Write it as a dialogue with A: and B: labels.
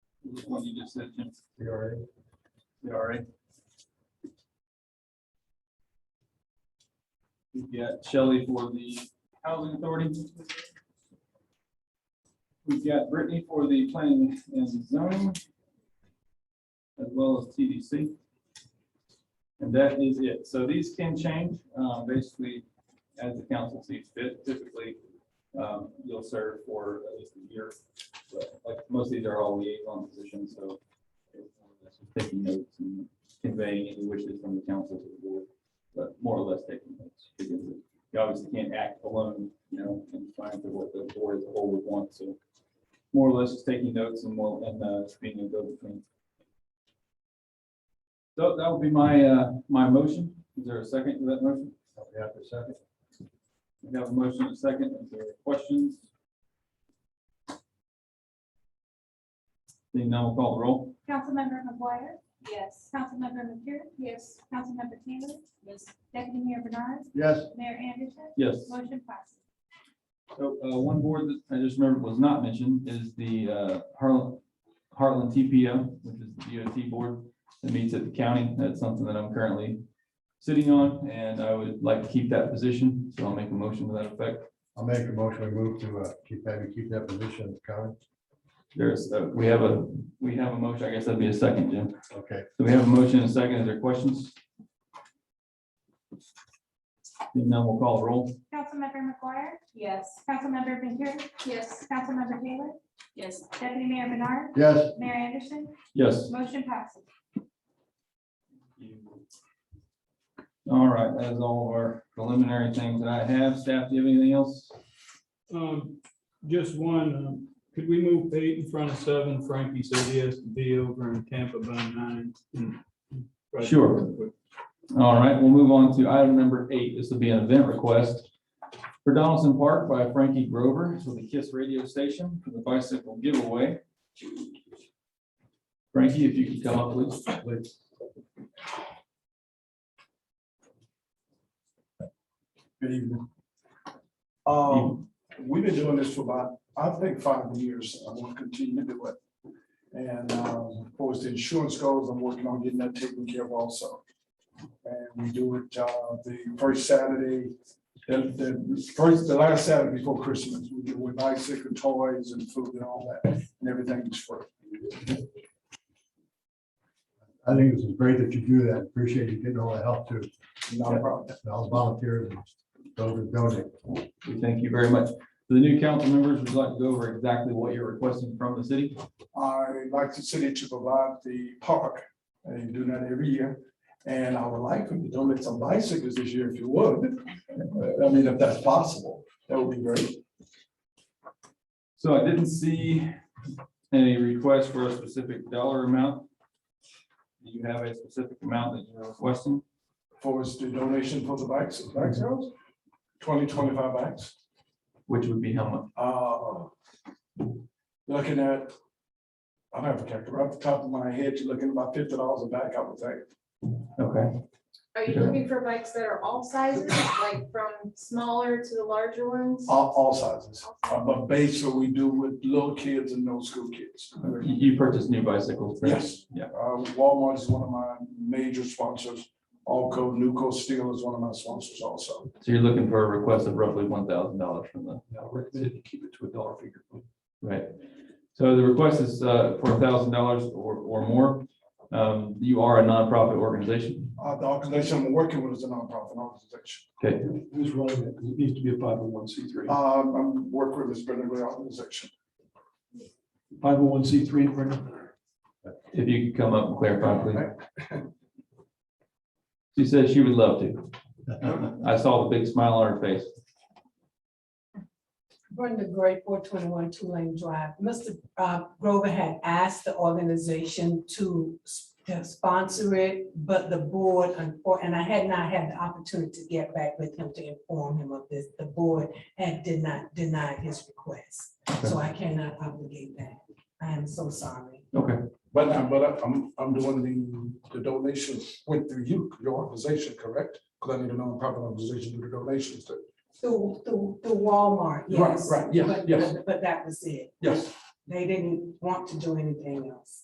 A: Which one you just said, Jim? CRA. CRA. We've got Shelley for the Housing Authority. We've got Brittany for the Planning and Zoning. As well as TDC. And that is it. So these can change, um, basically, as the council sees fit. Typically, um, you'll serve for at least a year. But like, most of these are all liaison positions, so it's more or less just taking notes and conveying any wishes from the council to the board, but more or less taking notes. because You obviously can't act alone, you know, and find out what the board as a whole would want, so more or less just taking notes and more, and, uh, being a go-between. So that would be my, uh, my motion. Is there a second to that motion?
B: We have a second.
A: We have a motion and a second. Is there questions? Seeing none, we'll call the roll.
C: Councilmember McGuire,
D: Yes.
C: Councilmember McCure,
D: Yes.
C: Councilmember Taylor,
D: Yes.
C: Deputy Mayor Bernard,
B: Yes,
C: Mayor Anderson,
A: Yes.
C: motion passes.
A: So, uh, one board that I just remembered was not mentioned is the, uh, Harlan, Harlan TPO, which is the DOT board that meets at the county. That's something that I'm currently sitting on, and I would like to keep that position, so I'll make a motion to that effect.
B: I'll make a motion, we move to, uh, keep, have you keep that position at the county.
A: There's, uh, we have a, we have a motion, I guess that'd be a second, Jim.
B: Okay,
A: So we have a motion and a second. Is there questions? Seeing none, we'll call the roll.
C: Councilmember McGuire,
D: Yes.
C: Councilmember McCure,
D: Yes.
C: Councilmember Taylor,
D: Yes.
C: Deputy Mayor Bernard,
B: yes,
C: Mayor Anderson,
A: Yes.
C: motion passes.
A: All right, that is all of our preliminary things that I have. Staff, do you have anything else?
E: Um, just one, um, could we move eight in front of seven? Frankie said he has to be over in Tampa by nine.
F: Hmm.
E: Right.
A: Sure. All right, we'll move on to item number eight. This will be an event request for Donaldson Park by Frankie Grover for the KISS radio station for the bicycle giveaway. Frankie, if you could come up, please.
B: please.
F: Good evening. Um, we've been doing this for about, I think, five years. I'm gonna continue to do it. And, um, of course, the insurance goes, I'm working on getting that taken care of also. And we do it, uh, the first Saturday, the, the first, the last Saturday before Christmas, we do with bicycle toys and food and all that, and everything is free.
B: I think this is great that you do that. Appreciate you getting all the help too.
F: Not a problem.
B: And all the volunteers, and those that donate.
A: We thank you very much. For the new council members, would you like to go over exactly what you're requesting from the city?
F: I like the city to provide the park, and you do that every year. And I would like them to donate some bicycles this year if you would. I mean, if that's possible, that would be great.
A: So I didn't see any request for a specific dollar amount. Do you have a specific amount that you're requesting?
F: For us to donation for the bikes, bike sales, twenty, twenty-five bikes.
A: Which would be how much?
F: Uh, Looking at, I don't have a calculator, off the top of my head, you're looking at about fifty dollars a bike, I would think.
A: Okay,
D: Are you looking for bikes that are all sizes, like from smaller to the larger ones?
F: All, all sizes, Uh, but basically, we do with little kids and no school kids.
A: you, you purchased new bicycles. correct?
F: Yes.
A: Yeah.
F: Uh, Walmart is one of my major sponsors. Alco, Nuco Steel is one of my sponsors also.
A: So you're looking for a request of roughly one thousand dollars from the,
F: Now, recommended to keep it to a dollar figure.
A: right? So the request is uh, for thousand dollars or, or more. Um, You are a nonprofit organization.
F: Uh, the organization I'm working with is a nonprofit organization.
A: Okay,
F: Who's running it? It needs to be a five oh one C three. Um, I'm working with this Brendan Gray organization. Five oh one C three, Brendan.
A: if you could come up and clarify, please. She said she would love to. I saw the big smile on her face.
G: Brenda Gray, four twenty-one Tulane Drive. Mr. uh, Grover had asked the organization to s- to sponsor it, but the board, unfor- and I had not had the opportunity to get back with him to inform him of this. The board had did not deny his request, so I cannot obligate that. I am so sorry.
A: Okay.
F: But I'm, but I'm, I'm doing the, the donations went through you, your organization, correct? Because I need a nonprofit organization to do the donations to.
G: Through, through, through Walmart, yes.
F: right, yes,
G: But-
F: yes.
G: But that was it.
F: Yes.
G: They didn't want to do anything else.